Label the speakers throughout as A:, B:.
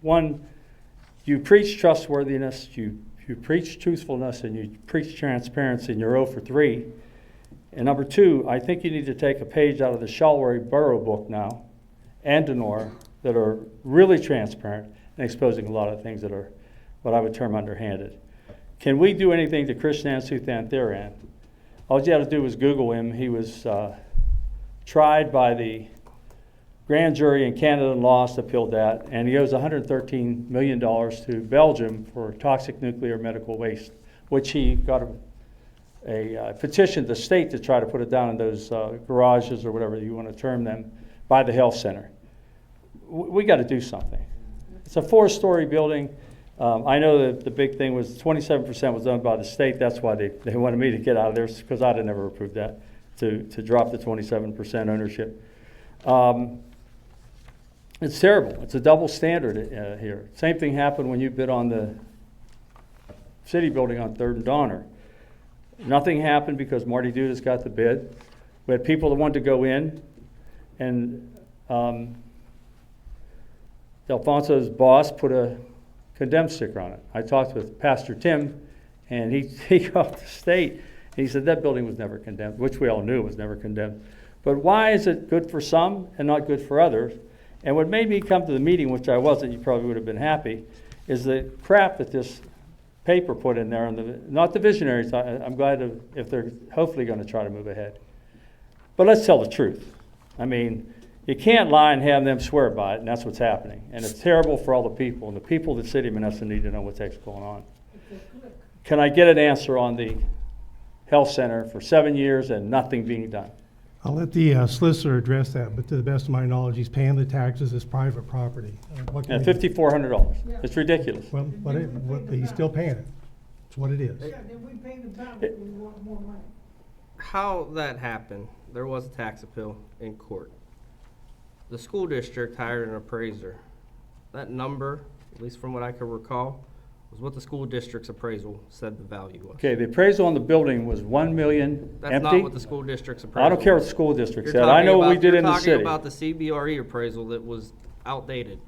A: one, you preach trustworthiness, you, you preach truthfulness, and you preach transparency, and you're 0 for 3. And number two, I think you need to take a page out of the Shalwari Borough book now and Denora that are really transparent and exposing a lot of things that are what I would term underhanded. Can we do anything to Krishnan Suthan Theran? All you had to do was Google him. He was uh, tried by the grand jury in Canada and lost, appealed that, and he owes $113 million to Belgium for toxic nuclear medical waste, which he got a a uh, petition to state to try to put it down in those uh, garages or whatever you want to term them by the health center. W- We got to do something. It's a four-story building. Um, I know that the big thing was 27% was done by the state. That's why they, they wanted me to get out of there because I'd have never approved that to, to drop the 27% ownership. Um, it's terrible. It's a double standard uh, here. Same thing happened when you bid on the city building on Third and Donner. Nothing happened because Marty Dudas got the bid. We had people that wanted to go in, and um, Delfonso's boss put a condemned sticker on it. I talked with Pastor Tim, and he, he called the state, and he said that building was never condemned, which we all knew was never condemned. But why is it good for some and not good for others? And what made me come to the meeting, which I wasn't, you probably would have been happy, is the crap that this paper put in there, and the, not the visionaries, I, I'm glad if- if they're hopefully gonna try to move ahead. But let's tell the truth. I mean, you can't lie and have them swear by it, and that's what's happening. And it's terrible for all the people, and the people of the city of Menneson need to know what the heck's going on. Can I get an answer on the health center for seven years and nothing being done?
B: I'll let the uh, solicitor address that, but to the best of my knowledge, he's paying the taxes as private property. Uh, what can
A: And
B: we do?
A: fifty-four hundred dollars, it's ridiculous.
B: Well, what it- what- but he's still paying it. It's what it is.
C: Yeah, then we pay the pound if we want more money.
D: how that happened, there was a tax appeal in court. The school district hired an appraiser. That number, at least from what I can recall, was what the school district's appraisal said the value was.
A: Okay, the appraisal on the building was one million
D: That's not
A: empty.
D: what the school district's appraisal.
A: I don't care what
D: was.
A: the school district
D: You're
A: said, I
D: talking
A: know what we
D: about-
A: did in the
D: You're
A: city.
D: talking about the CBRE E appraisal that was outdated.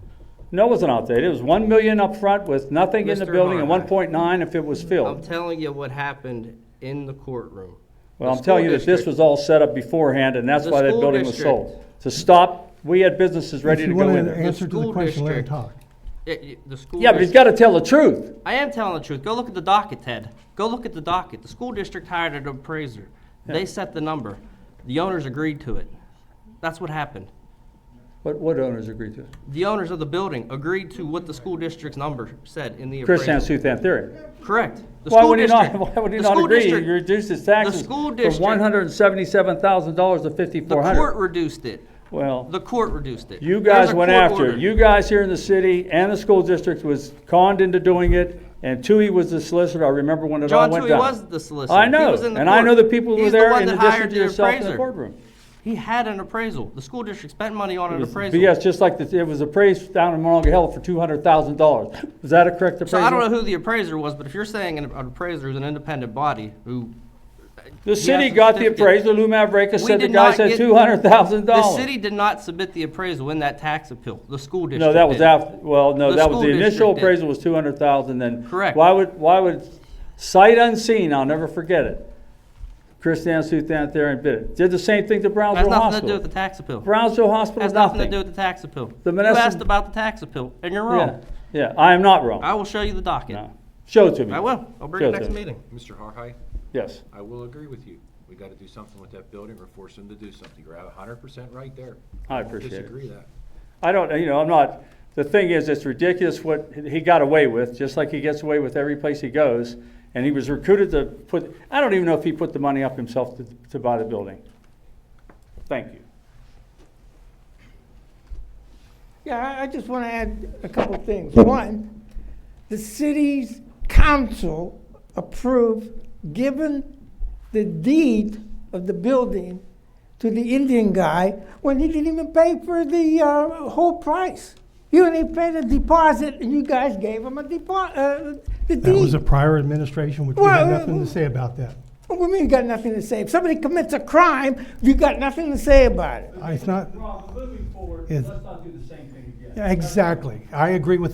A: No, it wasn't outdated. It was one million up front with nothing in the
D: Mr.
A: building and one
D: Harnack.
A: point nine if it was
D: I'm
A: filled.
D: telling you what happened in the courtroom.
A: Well,
D: The
A: I'm telling you
D: school
A: that this
D: district-
A: was all set up beforehand and that's
D: The
A: why that
D: school
A: building was
D: district-
A: sold. To stop, we had businesses ready
B: If
A: to
B: you
A: go
B: want
A: in
B: an
A: there.
B: answer to the
D: school
B: question, let him
D: district-
B: talk.
D: It- it- the school.
A: Yeah, but
D: district-
A: he's gotta tell the truth.
D: I am telling the truth. Go look at the docket, Ted. Go look at the docket. The school district hired an appraiser. They set the number. The owners agreed to it. That's what happened.
A: What, what owners agreed to it?
D: The owners of the building agreed to what the school district's number said in the
A: Chris
D: appraisal.
A: Suthan theory.
D: Correct. The
A: Why
D: school
A: would he not,
D: district-
A: why would he
D: the
A: not
D: school
A: agree? He
D: district-
A: reduced his taxes
D: school
A: from
D: district-
A: one hundred and seventy-seven thousand dollars to
D: The
A: fifty-four
D: court
A: hundred.
D: reduced it.
A: Well.
D: The court reduced it.
A: You
D: There's
A: guys
D: a
A: went
D: court
A: after
D: order.
A: it. You guys here in the city and the school district was conned into doing it, and Tui was the solicitor. I remember when it all
D: John
A: went
D: Tui
A: down.
D: was the solicitor.
A: I
D: He
A: know,
D: was in the
A: and I know the
D: court.
A: people who were
D: He's the
A: there
D: one
A: in
D: that
A: addition
D: hired
A: to
D: the
A: yourself in the
D: appraiser.
A: courtroom.
D: He had an appraisal. The school district spent money on an appraisal.
A: Yes, just like the- it was appraised down in Monongah Hill for two hundred thousand dollars. Was that a correct appraisal?
D: So I don't know who the appraiser was, but if you're saying an an appraiser is an independent body who.
A: The city
D: Yes,
A: got the
D: certificate.
A: appraisal. Lou Mavrekas
D: We
A: said the
D: did
A: guy
D: not
A: said
D: get-
A: two hundred thousand
D: The
A: dollars.
D: city did not submit the appraisal in that tax appeal, the school district.
A: No, that was
D: did.
A: after, well, no,
D: The
A: that was, the
D: school
A: initial
D: district did.
A: appraisal was two hundred thousand, then.
D: Correct.
A: Why would, why would, sight unseen, I'll never forget it. Chris Dan Suthan there and bid it. Did the same thing to
D: Has
A: Brownsville
D: nothing to do with the
A: Hospital.
D: tax appeal.
A: Brownsville Hospital,
D: Has nothing to do
A: nothing.
D: with the tax appeal.
A: The
D: You
A: Menneson-
D: asked about the tax appeal, and you're
A: Yeah,
D: wrong.
A: yeah, I am not wrong.
D: I will show you the docket.
A: No. Show it to me.
D: I will. I'll bring it
A: Show it
D: next
A: to me.
D: meeting.
E: Mr. Harhide,
A: Yes.
E: I will agree with you. We gotta do something with that building or force them to do something. You're a hundred percent right there.
A: I
E: don't
A: appreciate it.
E: Disagree that.
A: I don't, you know, I'm not, the thing is, it's ridiculous what he got away with, just like he gets away with every place he goes. And he was recruited to put, I don't even know if he put the money up himself to, to buy the building. Thank you.
C: Yeah, I, I just want to add a couple of things. One, the city's council approved giving the deed of the building to the Indian guy when he didn't even pay for the uh, whole price. He only paid a deposit, and you guys gave him a deposit, uh, the deed.
B: That was a prior administration, which we had
C: Well,
B: nothing to say about that.
C: What do you mean you got nothing to say? If somebody commits a crime, you got nothing to say about it.
B: I- It's not,
A: Rob, moving forward,
B: Yes.
A: not do the same thing again.
B: exactly. I agree with